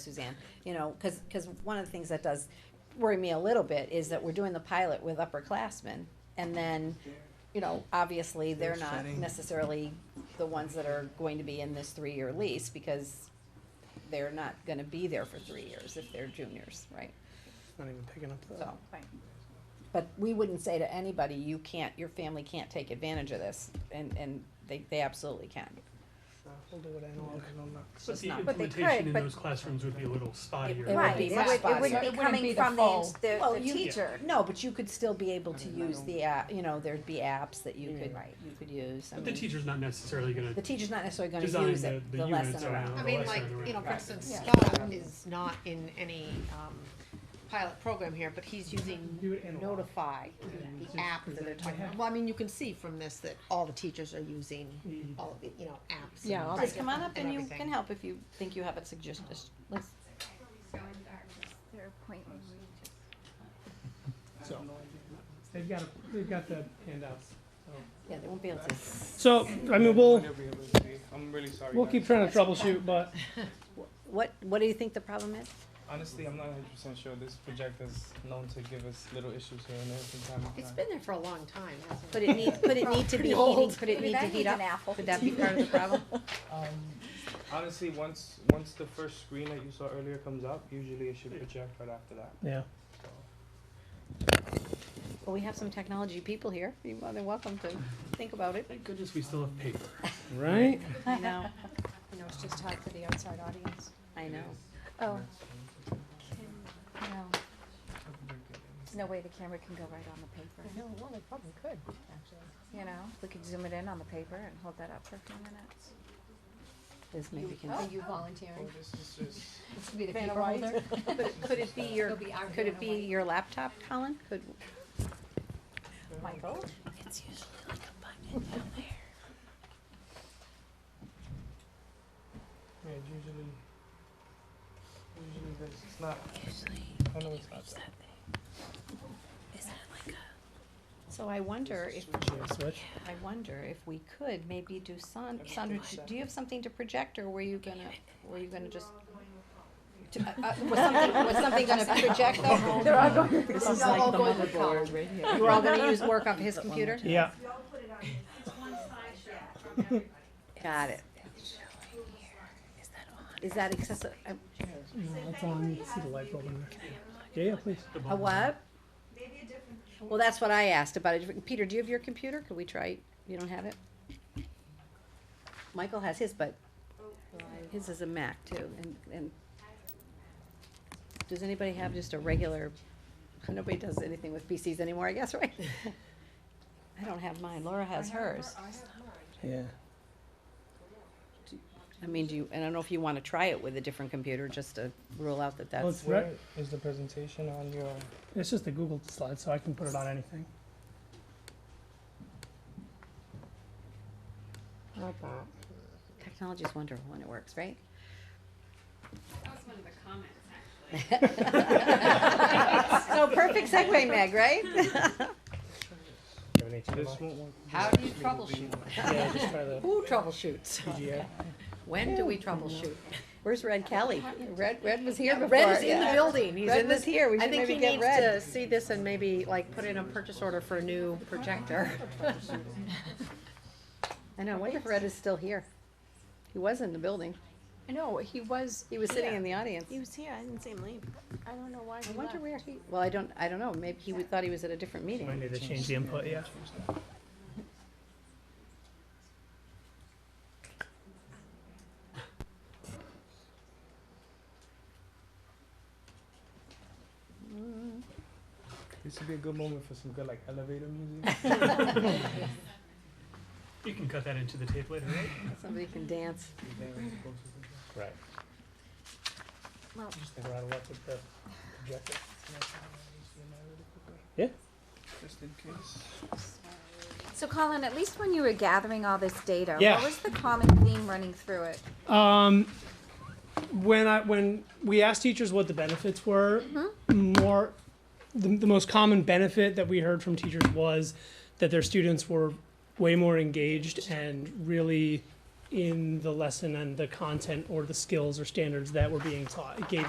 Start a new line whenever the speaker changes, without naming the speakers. Suzanne, you know, cause, 'cause one of the things that does worry me a little bit is that we're doing the pilot with upperclassmen. And then, you know, obviously, they're
They're
not
setting-
necessarily the ones that are going to be in this three-year lease because they're not gonna be there for three years if they're juniors, right?
Not even picking up the.
So. But we wouldn't say to anybody, you can't, your family can't take advantage of this, and, and they, they absolutely can.
Uh, We'll do it analog and on the-
But
But
the
the
not- But
they could,
implementation in
but-
those classrooms would be a little spottier.
It would
Right,
be
it
much
would, it
faster.
wouldn't
It
be
wouldn't
coming from the, ins- the,
Well,
the
you-
teacher.
No, but you could still be able to
I mean, I
use
don't-
the app, you know, there'd be apps that you could,
Right.
you could use, I
Mm. But the
mean,
teacher's not necessarily gonna
the teacher's not necessarily gonna
design
use
the,
it,
the
the
units
lesson
around.
I
the
around.
mean,
lesson
like,
around.
you know, for
Right.
instance,
Yeah.
Scott is not in any, um, pilot program here, but he's
Do
using
it analog.
Notify, the app that they're talking about. Well, I mean, you can see from this that all the teachers are using
Mm-hmm.
all of the, you know, apps and.
Yeah, all the
Just come on up and you
everything.
can help if you think you have a suggestion, Just- let's,
Their appointment.
So. They've got, a- they've got the handouts.
yeah, they won't be able to.
So, I mean, we'll,
I'm really sorry.
we'll keep trying to troubleshoot, but
What, what do you think the problem is?
Honestly, I'm not hundred percent sure. This projector's known to give us little issues here and there from time
It's been there for a long time, hasn't
Could
it?
it need, could it need to be heated, could it need to heat up?
apple.
Could that be part of the problem?
Honestly, once once the first screen that you saw earlier comes up, usually it should project right after that.
yeah.
Well, we have some technology people here, you're more than welcome to think about it,
Thank goodness we still have paper.
Right?
I know,
You know, it's just hard for the outside audience.
I know.
Oh,
No, there's no way the camera can go right on the paper,
no, well, they probably could, actually.
you know? We could zoom it in on the paper and hold that up for a few minutes. Oh.
This maybe can.
Are you volunteering?
this is just
This would be the
Vanna
paper
White.
holder.
But could it be your,
It'll be our
could it be
Vanna White.
your laptop, Colin? Could,
Michael?
yeah, it's usually usually this. It's not. I know it's not that.
so I wonder if,
Should I switch?
I wonder if we could maybe do Son, Sandra, d- do you have something to project or were you gonna, were you gonna just? to- uh, uh, Was something, was something gonna project though? They're all going. This is like the motherboard right here. You were all gonna use work off his computer?
Yeah.
Got it. Is that uh, accessible,
No, it's on, you see the light bulb in there. Yeah, yeah, please.
The
a
bottom.
what? Well, that's what I asked about it. Peter, do you have your computer? Could we try, you don't have it? Michael has his, but his is a Mac too, and, and does anybody have just a regular, nobody does anything with PCs anymore, I guess, right? I don't have mine. Laura has hers.
Yeah.
I mean, do you, and I don't know if you wanna try it with a different computer, just to rule out that
Well,
that's,
it's right,
Is the presentation on your?
it's just a Google slide, so I can put it on anything.
technology's wonderful when it works, right?
That was one of the comments, actually.
So perfect segue, Meg, right?
This won't work.
How do you troubleshoot?
Yeah, just try the
Who troubleshoots?
PGA.
When do we troubleshoot?
Where's Red Kelly? Red, Red was here before.
Red is in the
yeah.
building, he's
Red
in this.
was here. We
I
should
think
maybe
he
get
needs
Red.
to see this and maybe like put in a purchase order for a new projector.
I know, I wonder if Red is still here. He was in the building.
I know, he was,
He was sitting in the audience.
was here, I didn't see him leave. I don't know why
I wonder where he, well, I don't, I don't know. Maybe he would- thought he was at a different
Might
meeting.
need to change the input, yeah.
This would be a good moment for some good like elevator music.
You can cut that into the tape later, right?
Somebody can dance.
Right. Just think around left with the projector. Yeah.
Just in case.
So Colin, at least when you were gathering all this data,
Yeah.
what was the common theme running through it?
Um, when I when we asked teachers what the benefits were, more the, the most common benefit that we heard from teachers was that their students were way more engaged and really in the lesson and the content or the skills or standards that were being taught. It gave